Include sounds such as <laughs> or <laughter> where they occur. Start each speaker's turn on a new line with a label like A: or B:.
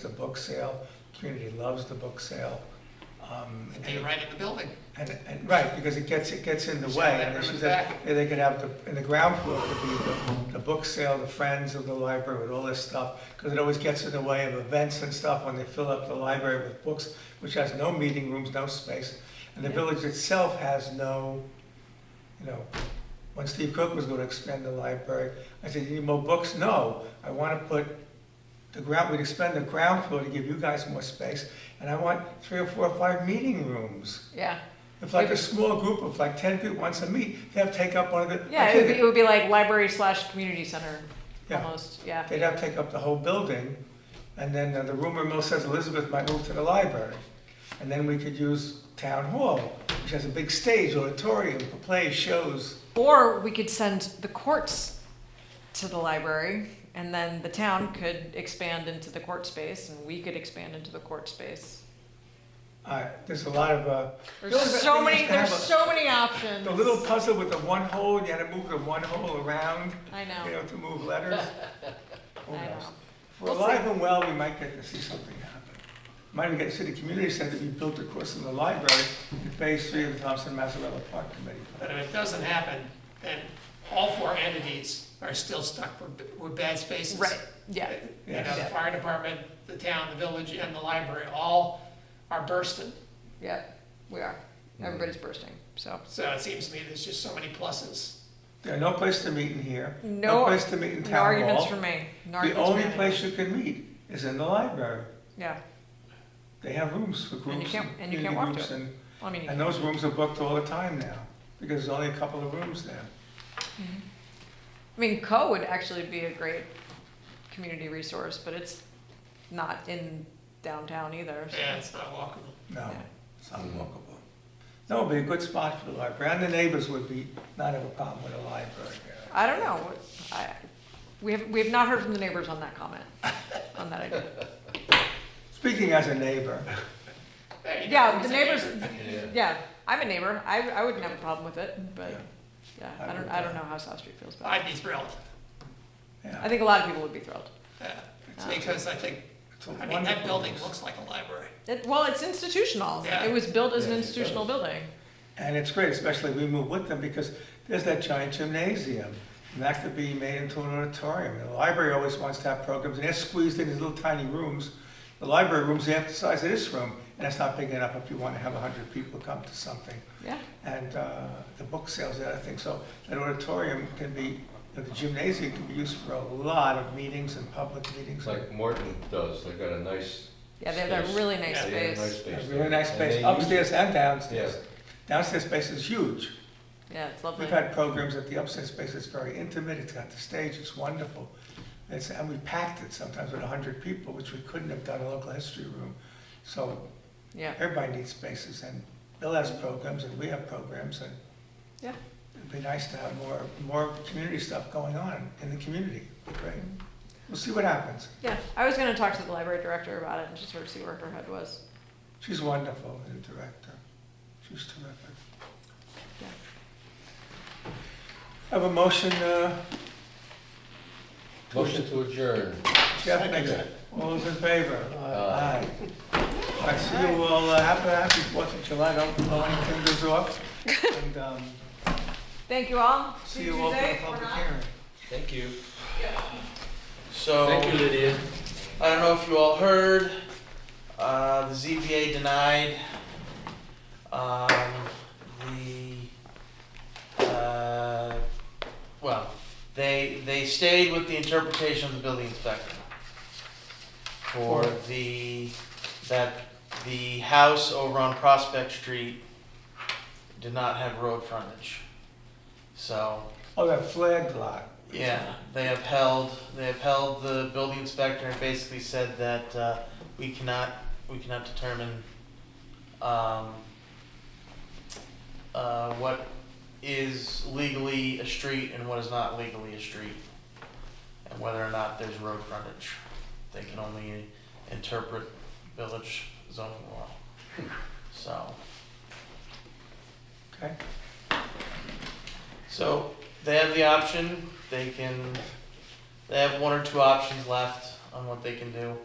A: the book sale, community loves the book sale. Um,
B: And they're right in the building.
A: And, and, right, because it gets, it gets in the way. And she
B: Everyone's
A: said,
B: back.
A: yeah, they could have, the in the ground floor could be the, the book sale, the friends of the library, with all this stuff, because it always gets in the way of events and stuff when they fill up the library with books, which has no meeting rooms, no space. And the village itself has no, you know, when Steve Cook was gonna expand the library, I said, you need more books? No, I wanna put the ground, we'd expand the ground floor to give you guys more space, and I want three or four or five meeting rooms.
C: Yeah,
A: If like a small group of like ten people wants to meet, they have to take up one of the.
C: yeah,
A: I
C: it would,
A: think
C: be, it would be like library slash community center
A: Yeah.
C: almost. Yeah,
A: They'd have to take up the whole building, and then uh, the rumor mill says Elizabeth might move to the library. And then we could use town hall, which has a big stage, auditorium for plays, shows.
C: or we could send the courts to the library, and then the town could expand into the court space, and we could expand into the court space.
A: Uh, there's a lot of, uh.
C: There's
A: Elizabeth
C: so
A: thing is
C: many.
A: to have
C: There's
A: a-
C: so many options.
A: The little puzzle with the one hole, and you had to move the one hole around,
C: I
A: you
C: know.
A: know, to move
C: <laughs>
A: letters. Who
C: I
A: knows?
C: know.
A: If We're
C: We'll see.
A: alive and well, we might get to see something happen. Might even get to see the community center be built across from the library, in phase three of the Thompson Mazzarella Park
B: But
A: Committee.
B: if it doesn't happen, then all four entities are still stuck with, with bad spaces.
C: Right. Yeah.
B: You know, the fire department, the town, the village, and the library all are bursting.
C: Yeah. We are. Everybody's bursting. So
B: So it seems to me there's just so many pluses.
A: There are no place to meet in here, no
C: No-
A: place to meet in
C: no
A: town
C: arguments for
A: hall.
C: me. No
A: The
C: arguments
A: only
C: for me.
A: place you can meet is in the library.
C: Yeah.
A: They have rooms for
C: you
A: groups
C: can't-
A: and
C: and you
A: community
C: can't walk to
A: groups and,
C: I mean,
A: and those rooms are booked all the time now, because there's only a couple of rooms there.
C: I mean, Co would actually be a great community resource, but it's not in downtown either. so-
B: Yeah, it's not walkable.
A: No,
C: Yeah.
A: it's unwalkable. No, it'd be a good spot for the library, and the neighbors would be, not have a problem with a library here.
C: I don't know. I, we have, we have not heard from the neighbors on that comment, on that idea.
A: Speaking as a
B: <laughs>
A: neighbor,
B: There you go.
C: Yeah, the
B: It's a
C: neighbors,
D: Yeah.
C: yeah, I'm a neighbor. I, I wouldn't have a problem with it, but, yeah, I don't, I don't know how South Street feels about it.
B: I'd be thrilled,
C: I
A: yeah,
C: think a lot of people would be thrilled.
B: yeah, because I think,
A: it's a
B: I mean, that
A: wonderful
B: building
A: place.
B: looks like a library.
C: It, well, it's institutional.
B: Yeah.
C: It was built as an
D: Yeah, it
C: institutional building.
A: And it's great, especially we move with them, because there's that giant gymnasium, and that could be made into an auditorium. The library always wants to have programs, and they're squeezed in these little tiny rooms. The library room's half the size of this room, and that's not big enough if you want to have a hundred people come to something.
C: Yeah,
A: and uh, the book sales, and other things. So that auditorium can be, the gymnasium can be used for a lot of meetings and public meetings.
D: It's like Morton does, they've got a nice.
C: yeah, they have a really nice
B: Yeah,
D: they have a
C: space.
D: nice
A: A
D: space
A: really
D: there.
A: nice
D: And
A: space
D: they use
A: upstairs
D: it.
A: and
D: Yeah,
A: downstairs. Downstairs space is huge.
C: Yeah, it's lovely.
A: We've had programs at the upstairs space, it's very intimate, it's got the stage, it's wonderful. It's, and we packed it sometimes with hundred people, which we couldn't have done in a local history room. So
C: Yeah,
A: everybody needs spaces, and Bill has programs, and we have programs, and
C: yeah.
A: It'd be nice to have more, more community stuff going on in the community, right? We'll see what happens.
C: Yeah, I was gonna talk to the library director about it and just sort of see where her head was.
A: She's wonderful, the director. She's terrific.
C: Yeah.
A: Have a motion, uh,
D: motion to adjourn.
A: Jeff makes it. All those in favor?
D: Aye.
A: I see you all, uh, happy, happy Fourth of July, don't blow any fingers off. And, um,
C: Thank you all.
A: see you all for the
C: Tuesday, or
A: public
C: not.
A: hearing.
D: Thank you.
E: So,
D: Thank you, Lydia.
E: I don't know if you all heard, uh, the ZBA denied, um, the, uh, well, they, they stayed with the interpretation of the building inspector for the, that the house over on Prospect Street did not have road frontage. So,
A: Oh, that flag lot.
E: yeah, they upheld they upheld the building inspector and basically said that uh, we cannot we cannot determine um, uh, what is legally a street and what is not legally a street, and whether or not there's road frontage. They can only interpret village zoning law. So.
A: Okay,
E: So they have the option, they can, they have one or two options left on what they can do.